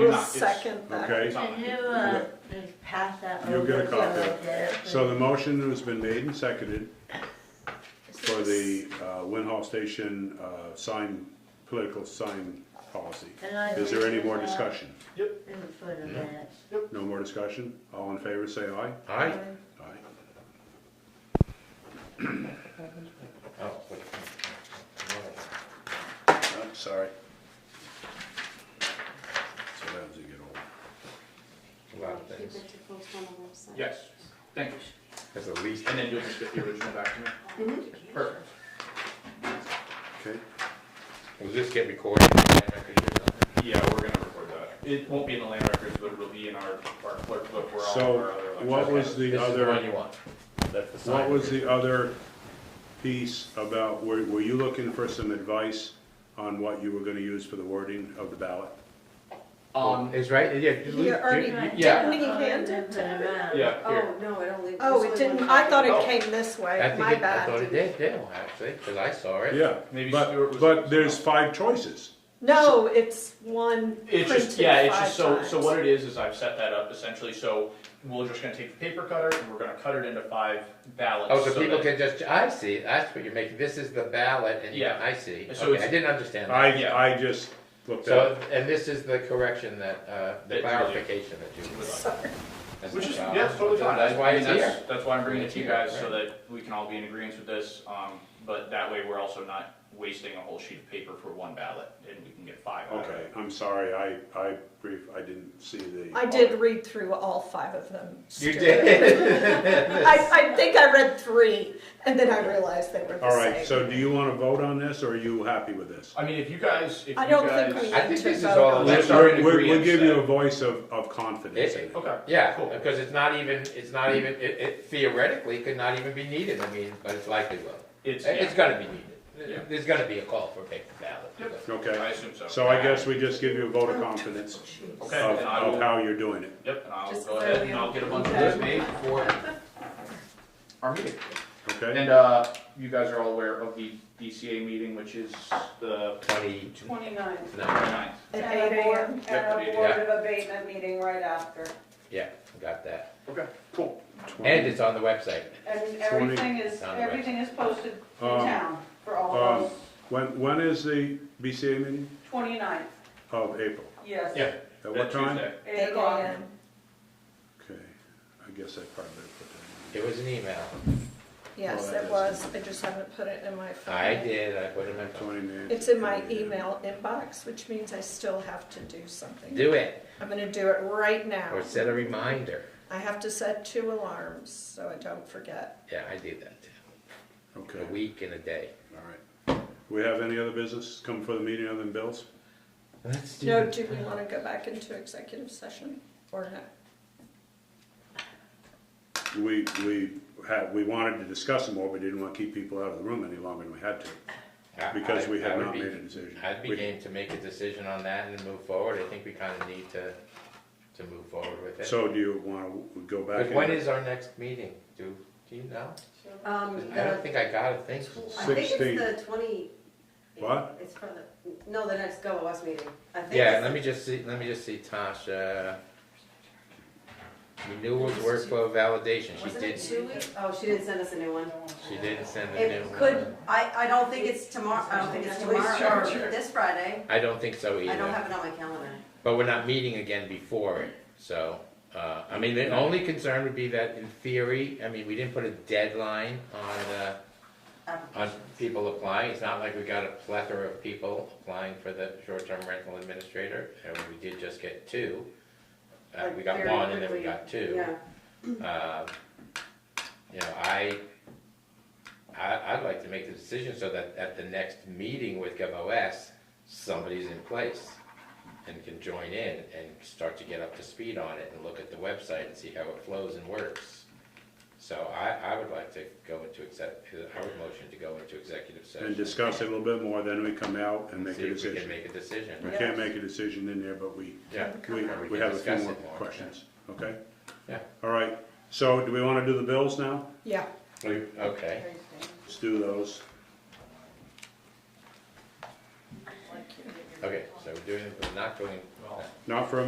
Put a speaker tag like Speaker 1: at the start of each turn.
Speaker 1: We'll
Speaker 2: not.
Speaker 1: second that.
Speaker 3: Okay,
Speaker 2: Can you,
Speaker 3: Yeah.
Speaker 2: uh, just pass that over?
Speaker 3: You'll get a
Speaker 2: so I
Speaker 3: copy.
Speaker 2: get it?
Speaker 3: so the motion has been made and seconded
Speaker 2: This
Speaker 3: for
Speaker 2: is-
Speaker 3: the uh, Wind Hall Station uh, sign, political sign policy.
Speaker 2: and I
Speaker 3: Is there any
Speaker 2: think
Speaker 3: more
Speaker 2: that
Speaker 3: discussion?
Speaker 2: is For the minutes.
Speaker 3: No more discussion? All in favor, say aye.
Speaker 4: Aye.
Speaker 3: Aye.
Speaker 4: Oh, wait.
Speaker 3: Oh, sorry. So that was a good old.
Speaker 4: A lot of things.
Speaker 5: Keep it to post on the website.
Speaker 6: Yes, thank you.
Speaker 4: That's the least.
Speaker 6: And then you'll just get the original back to me?
Speaker 1: Mm-hmm.
Speaker 6: Perfect.
Speaker 3: Okay,
Speaker 4: Will this get recorded? in the record or something?
Speaker 6: Yeah, we're gonna record that. It won't be in the land records, but it will be in our, our clerk book where all of
Speaker 3: So,
Speaker 6: our other elections.
Speaker 3: what was the
Speaker 4: This is
Speaker 3: other-
Speaker 4: one you want. That's the
Speaker 3: what
Speaker 4: sign.
Speaker 3: was the other piece about, were, were you looking for some advice on what you were gonna use for the wording of the ballot?
Speaker 6: Um,
Speaker 4: It's right, yeah. just leave-
Speaker 1: You already,
Speaker 4: ju-
Speaker 6: Yeah.
Speaker 1: didn't he hand it to me?
Speaker 6: yeah, here.
Speaker 5: Oh, no, it only.
Speaker 1: Oh, it
Speaker 5: there's only
Speaker 1: didn't,
Speaker 5: one
Speaker 1: I thought
Speaker 5: copy.
Speaker 1: it
Speaker 6: Oh.
Speaker 1: came this
Speaker 4: I
Speaker 1: way,
Speaker 4: think
Speaker 1: my
Speaker 4: it- I thought it
Speaker 1: bad.
Speaker 4: did, Dale, actually, because I saw it.
Speaker 3: Yeah,
Speaker 6: Maybe Stuart
Speaker 3: but,
Speaker 6: was-
Speaker 3: but there's five choices.
Speaker 1: No, it's one
Speaker 6: It's just,
Speaker 1: printed
Speaker 6: yeah, it's
Speaker 1: five
Speaker 6: just, so, so
Speaker 1: times.
Speaker 6: what it is, is I've set that up essentially, so we're just gonna take the paper cutter and we're gonna cut it into five ballots.
Speaker 4: Oh, so
Speaker 6: so
Speaker 4: people
Speaker 6: that-
Speaker 4: can just, I see, that's what you're making, this is the ballot, and
Speaker 6: Yeah.
Speaker 4: I see.
Speaker 6: So
Speaker 4: Okay,
Speaker 6: it's-
Speaker 4: I didn't understand that.
Speaker 3: I, I just looked at
Speaker 4: So,
Speaker 3: it.
Speaker 4: and this is the correction that, uh,
Speaker 6: That
Speaker 4: the
Speaker 6: you-
Speaker 4: clarification that you.
Speaker 1: Sorry.
Speaker 4: that's
Speaker 6: Which
Speaker 4: the
Speaker 6: is,
Speaker 4: problem.
Speaker 6: yeah, it's totally fine.
Speaker 4: That's why
Speaker 6: I mean,
Speaker 4: it's
Speaker 6: that's-
Speaker 4: here.
Speaker 6: That's why I'm bringing it to you
Speaker 4: Right.
Speaker 6: guys, so that we can all be in agreement with this, um, but that way we're also not wasting a whole sheet of paper for one ballot, and we can get five out of
Speaker 3: Okay,
Speaker 6: it.
Speaker 3: I'm sorry, I, I brief, I didn't see the.
Speaker 1: I did read through all five of them.
Speaker 4: You
Speaker 1: Stuart.
Speaker 4: did.
Speaker 1: I, I think I read three, and then I realized they were the same.
Speaker 3: All right, so do you wanna vote on this, or are you happy with this?
Speaker 6: I mean, if you guys, if you
Speaker 1: I don't think we
Speaker 6: guys.
Speaker 4: I
Speaker 1: need
Speaker 4: think
Speaker 1: to
Speaker 4: this is
Speaker 1: vote
Speaker 4: all
Speaker 1: on
Speaker 6: Let's
Speaker 1: it.
Speaker 6: election. start in
Speaker 3: We'll- We'll
Speaker 6: agreeance
Speaker 3: give you
Speaker 6: then.
Speaker 3: a voice of, of confidence in it.
Speaker 6: Okay.
Speaker 4: Yeah,
Speaker 6: Cool.
Speaker 4: because it's not even, it's not even, it- it theoretically could not even be needed, I mean, but it's likely will.
Speaker 6: It's,
Speaker 4: It's
Speaker 6: yeah,
Speaker 4: gonna be
Speaker 6: Yeah.
Speaker 4: needed. There's gonna be a call for a paper ballot.
Speaker 6: Yep. I
Speaker 3: Okay,
Speaker 6: assume so.
Speaker 3: so I guess we just give you a vote of confidence of,
Speaker 6: Okay, then I
Speaker 3: of
Speaker 6: will,
Speaker 3: how you're doing it.
Speaker 6: yep, and I'll
Speaker 5: Just
Speaker 6: go ahead and
Speaker 5: so
Speaker 6: I'll get a bunch of
Speaker 5: we-
Speaker 6: those made for our meeting.
Speaker 3: Okay,
Speaker 6: And, uh, you guys are all aware of the DCA meeting, which is the
Speaker 4: Twenty,
Speaker 5: Twenty-nine.
Speaker 4: no,
Speaker 6: 29th.
Speaker 1: At
Speaker 5: And a
Speaker 1: eight
Speaker 5: board-
Speaker 1: AM.
Speaker 6: Yep, yeah.
Speaker 5: And a board of abatement meeting right after.
Speaker 4: yeah, got that.
Speaker 6: Okay, cool.
Speaker 4: And it's on the website.
Speaker 5: And everything is,
Speaker 4: Sound right.
Speaker 5: everything is posted in
Speaker 3: Um,
Speaker 5: town for all
Speaker 3: um,
Speaker 5: those
Speaker 3: when, when is the BCA meeting?
Speaker 5: twenty-nine,
Speaker 3: Of April,
Speaker 5: yes.
Speaker 6: Yeah.
Speaker 3: at what
Speaker 6: That
Speaker 3: time?
Speaker 6: Tuesday.
Speaker 5: Eight
Speaker 1: Eight
Speaker 5: o'clock.
Speaker 1: AM.
Speaker 3: Okay, I guess I probably put that
Speaker 4: It was an email.
Speaker 1: Yes, it was, I just haven't put it in my phone.
Speaker 4: I did, I put it in my
Speaker 3: in.
Speaker 4: phone.
Speaker 3: Twenty minutes.
Speaker 1: It's in my email inbox, which means I still have to do something.
Speaker 4: Do it,
Speaker 1: I'm gonna do it right now.
Speaker 4: or set a reminder.
Speaker 1: I have to set two alarms, so I don't forget.
Speaker 4: Yeah, I do that too.
Speaker 3: Okay,
Speaker 4: A
Speaker 3: all
Speaker 4: week and a day.
Speaker 3: right. We have any other business come for the meeting other than bills?
Speaker 4: Let's do
Speaker 1: No,
Speaker 4: it.
Speaker 1: do we wanna go back into executive session or not?
Speaker 3: We, we had, we wanted to discuss them more, but didn't want to keep people out of the room any longer than we had to,
Speaker 4: I-
Speaker 3: because
Speaker 4: I-
Speaker 3: we
Speaker 4: I
Speaker 3: had
Speaker 4: would
Speaker 3: not
Speaker 4: be-
Speaker 3: made a decision.
Speaker 4: I'd be
Speaker 3: We-
Speaker 4: game to make a decision on that and move forward. I think we kind of need to, to move forward with it.
Speaker 3: So do you want to go back?
Speaker 4: But when
Speaker 3: in?
Speaker 4: is our next meeting? Do, do you know?
Speaker 7: Um,
Speaker 4: I don't
Speaker 7: the,
Speaker 4: think I got a thing.
Speaker 7: I think it's the twenty.
Speaker 3: What?
Speaker 7: It's for the, no, the next Go West meeting. I think
Speaker 4: Yeah,
Speaker 7: it's-
Speaker 4: let me just see, let me just see Tasha. Renewals workflow validation, she
Speaker 7: Wasn't it
Speaker 4: did,
Speaker 7: two weeks? Oh, she didn't send us a new one.
Speaker 4: she didn't send a new
Speaker 7: It could,
Speaker 4: one.
Speaker 7: I, I don't think it's tomorrow, I don't think it's
Speaker 5: Police
Speaker 7: tomorrow
Speaker 5: charger.
Speaker 7: or this Friday.
Speaker 4: I don't think so
Speaker 7: I don't
Speaker 4: either,
Speaker 7: have it on my calendar.
Speaker 4: but we're not meeting again before it, so, uh, I mean, the only concern would be that in theory, I mean, we didn't put a deadline on, uh, on people applying, it's not like we got a plethora of people applying for the short-term rental administrator, and we did just get two. Uh, we got
Speaker 7: Very
Speaker 4: one and then we
Speaker 7: quickly,
Speaker 4: got two.
Speaker 7: Yeah,
Speaker 4: Uh, You know, I, I, I'd like to make the decision so that at the next meeting with GovOS, somebody's in place and can join in and start to get up to speed on it and look at the website and see how it flows and works. So I, I would like to go into exec, I would motion to go into executive session.
Speaker 3: And discuss it a little bit more, then we come out and
Speaker 4: and
Speaker 3: make
Speaker 4: See
Speaker 3: a
Speaker 4: if we can
Speaker 3: decision.
Speaker 4: make a decision.
Speaker 3: We can't make a decision in there, but we,
Speaker 4: Yeah,
Speaker 3: we,
Speaker 4: Or we
Speaker 3: we
Speaker 4: can
Speaker 3: have a few
Speaker 4: discuss
Speaker 3: more
Speaker 4: it more,
Speaker 3: questions, okay?
Speaker 4: Yeah.
Speaker 3: All right, so do we want to do the bills now?
Speaker 1: Yeah,
Speaker 4: We- okay.
Speaker 3: Let's do those.
Speaker 4: Okay, so we're doing, we're not doing,
Speaker 6: Well,
Speaker 3: Not for a